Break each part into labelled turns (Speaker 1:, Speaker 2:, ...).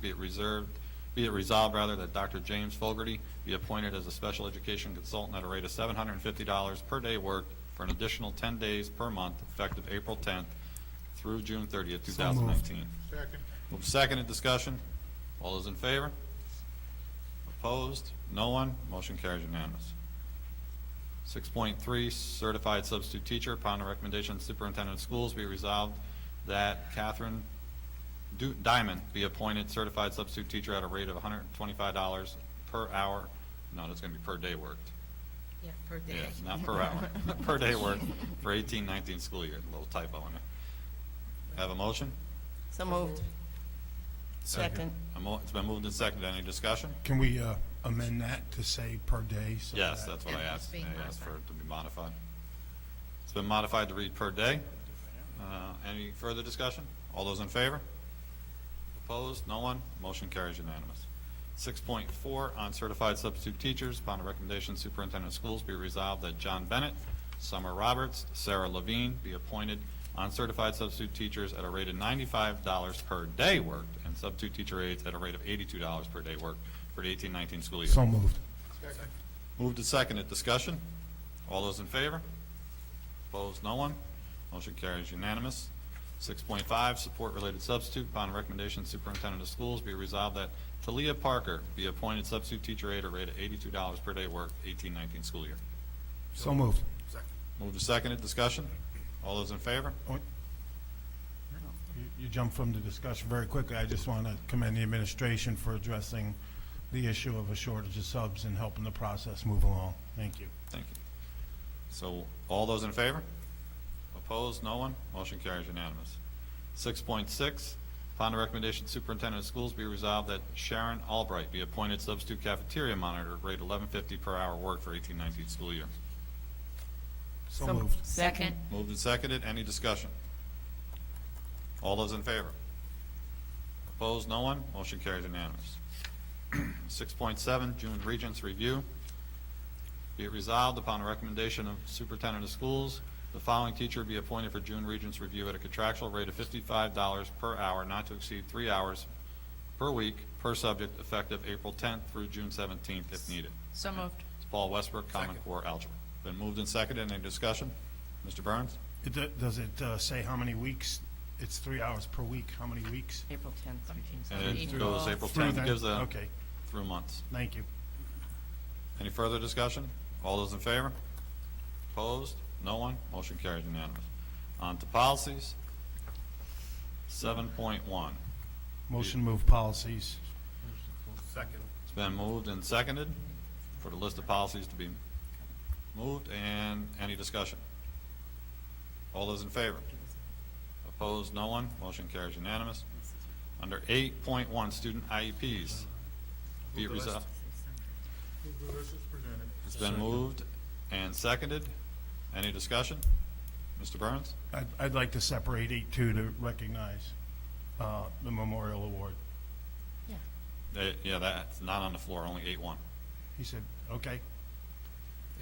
Speaker 1: be it reserved, be it resolved, rather, that Dr. James Fogarty be appointed as a special education consultant at a rate of $750 per day worked for an additional 10 days per month, effective April 10th through June 30th, 2019.
Speaker 2: Second.
Speaker 1: Move seconded, discussion. All those in favor? Opposed? No one? Motion carries unanimous. 6.3, certified substitute teacher, upon the recommendation of superintendent of schools, be resolved that Catherine Du- Diamond be appointed certified substitute teacher at a rate of $125 per hour. No, that's going to be per day worked.
Speaker 3: Yeah, per day.
Speaker 1: Yes, not per hour, per day work for 18, 19 school year. Little typo in there. Have a motion?
Speaker 3: So moved. Second.
Speaker 1: A mo- It's been moved and seconded. Any discussion?
Speaker 2: Can we uh, amend that to say per day? so
Speaker 1: Yes,
Speaker 2: that-
Speaker 1: that's what I
Speaker 3: And it's
Speaker 1: asked.
Speaker 3: being
Speaker 1: I asked for
Speaker 3: modified.
Speaker 1: it to be modified. It's been modified to read per day. Uh, Any further discussion? All those in favor? Opposed? No one? Motion carries unanimous. Six point four, on certified substitute teachers, upon the recommendation of superintendent of schools, be resolved that John Bennett, Summer Roberts, Sarah Levine be appointed uncertified substitute teachers at a rate of ninety-five dollars per day worked, and substitute teacher aides at a rate of eighty-two dollars per day worked for the eighteen nineteen school year.
Speaker 2: So moved.
Speaker 1: Moved to second at discussion. All those in favor? Opposed, no one. Motion carries unanimous. Six point five, support-related substitute. Upon recommendation superintendent of schools, be resolved that Talia Parker be appointed substitute teacher aide at a rate of eighty-two dollars per day worked, eighteen nineteen school year.
Speaker 2: So moved.
Speaker 1: Moved to second at discussion. All those in favor?
Speaker 2: Oh, you- You jumped from the discussion very quickly. I just want to commend the administration for addressing the issue of a shortage of subs and helping the process move along. Thank you.
Speaker 1: Thank you. So, all those in favor? Opposed, no one? Motion carries unanimous. Six point six, upon the recommendation of superintendent of schools, be resolved that Sharon Albright be appointed substitute cafeteria monitor, rate eleven fifty per hour work for eighteen nineteen school year.
Speaker 2: So moved.
Speaker 3: Second.
Speaker 1: Moved and seconded, any discussion? All those in favor? Opposed, no one? Motion carries unanimous. Six point seven, June Regents Review. Be it resolved upon the recommendation of Superintendent of Schools, the following teacher be appointed for June Regents Review at a contractual rate of fifty-five dollars per hour, not to exceed three hours per week, per subject, effective April tenth through June seventeenth, if needed.
Speaker 3: So moved.
Speaker 1: It's Paul Westbrook, Common Core Algebra. Been moved and seconded, any discussion? Mr. Burns?
Speaker 2: It do- Does it uh, say how many weeks? It's three hours per week. How many weeks?
Speaker 3: April tenth.
Speaker 1: And it
Speaker 2: April-
Speaker 1: goes April
Speaker 2: Through
Speaker 1: 10th,
Speaker 2: that-
Speaker 1: gives a,
Speaker 2: Okay,
Speaker 1: through months.
Speaker 2: thank you.
Speaker 1: Any further discussion? All those in favor? Opposed? No one? Motion carries unanimous. On to policies. 7.1.
Speaker 2: Motion to move policies.
Speaker 1: It's been moved and seconded for the list of policies to be moved, and any discussion? All those in favor? Opposed? No one? Motion carries unanimous. Under 8.1, student IEPs. Be it resolved. It's been moved and seconded. Any discussion? Mr. Burns?
Speaker 2: I'd, I'd like to separate eight two to recognize uh, the memorial award.
Speaker 1: Eh, Yeah, that's not on the floor, only eight one.
Speaker 2: He said, okay,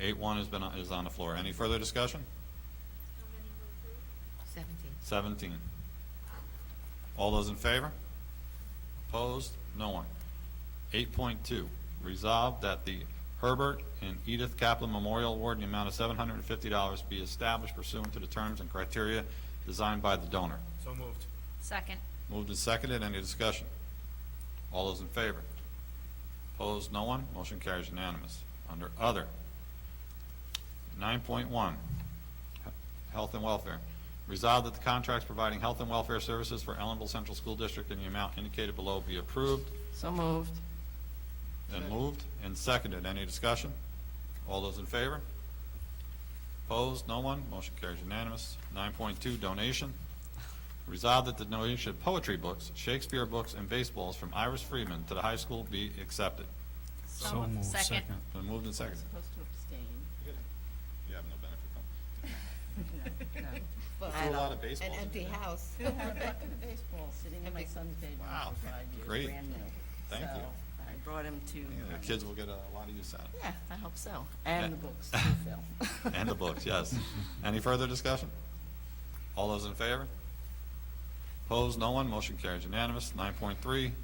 Speaker 1: Eight one has been, on- is on the floor. Any further discussion?
Speaker 3: Seventeen.
Speaker 1: Seventeen. All those in favor? Opposed? No one. Eight point two, resolved that the Herbert and Edith Kaplan Memorial Award in the amount of seven hundred and fifty dollars be established pursuant to the terms and criteria designed by the donor.
Speaker 4: So moved.
Speaker 3: Second.
Speaker 1: Moved and seconded, any discussion? All those in favor? Opposed, no one, motion carries unanimous. Under Other, 9.1, He- Health and Welfare. Resolved that the contracts providing health and welfare services for Ellenville Central School District in the amount indicated below be approved
Speaker 3: So moved.
Speaker 1: and moved and seconded. Any discussion? All those in favor? Opposed? No one? Motion carries unanimous. Nine point two, donation. Resolved that the donation of poetry books, Shakespeare books, and baseballs from Iris Freeman to the high school be accepted.
Speaker 3: So moved. Second.
Speaker 1: Been moved and seconded.
Speaker 5: Supposed to abstain.
Speaker 1: You have no benefit from
Speaker 5: I
Speaker 1: Threw a lot of baseballs
Speaker 3: An
Speaker 1: in
Speaker 3: empty
Speaker 1: there.
Speaker 3: house.
Speaker 5: still have a bucket of baseballs sitting in my son's bedroom
Speaker 1: Wow,
Speaker 5: for five years,
Speaker 1: great.
Speaker 5: brand new.
Speaker 1: Thank you.
Speaker 5: So I brought him to.
Speaker 1: Yeah, The kids will get a lot of use out of
Speaker 5: Yeah, I hope so.
Speaker 1: And-
Speaker 5: And the books, too, Phil.
Speaker 1: it. And the books, yes. Any further discussion? All those in favor? Opposed? No one? Motion carries unanimous. Nine point three,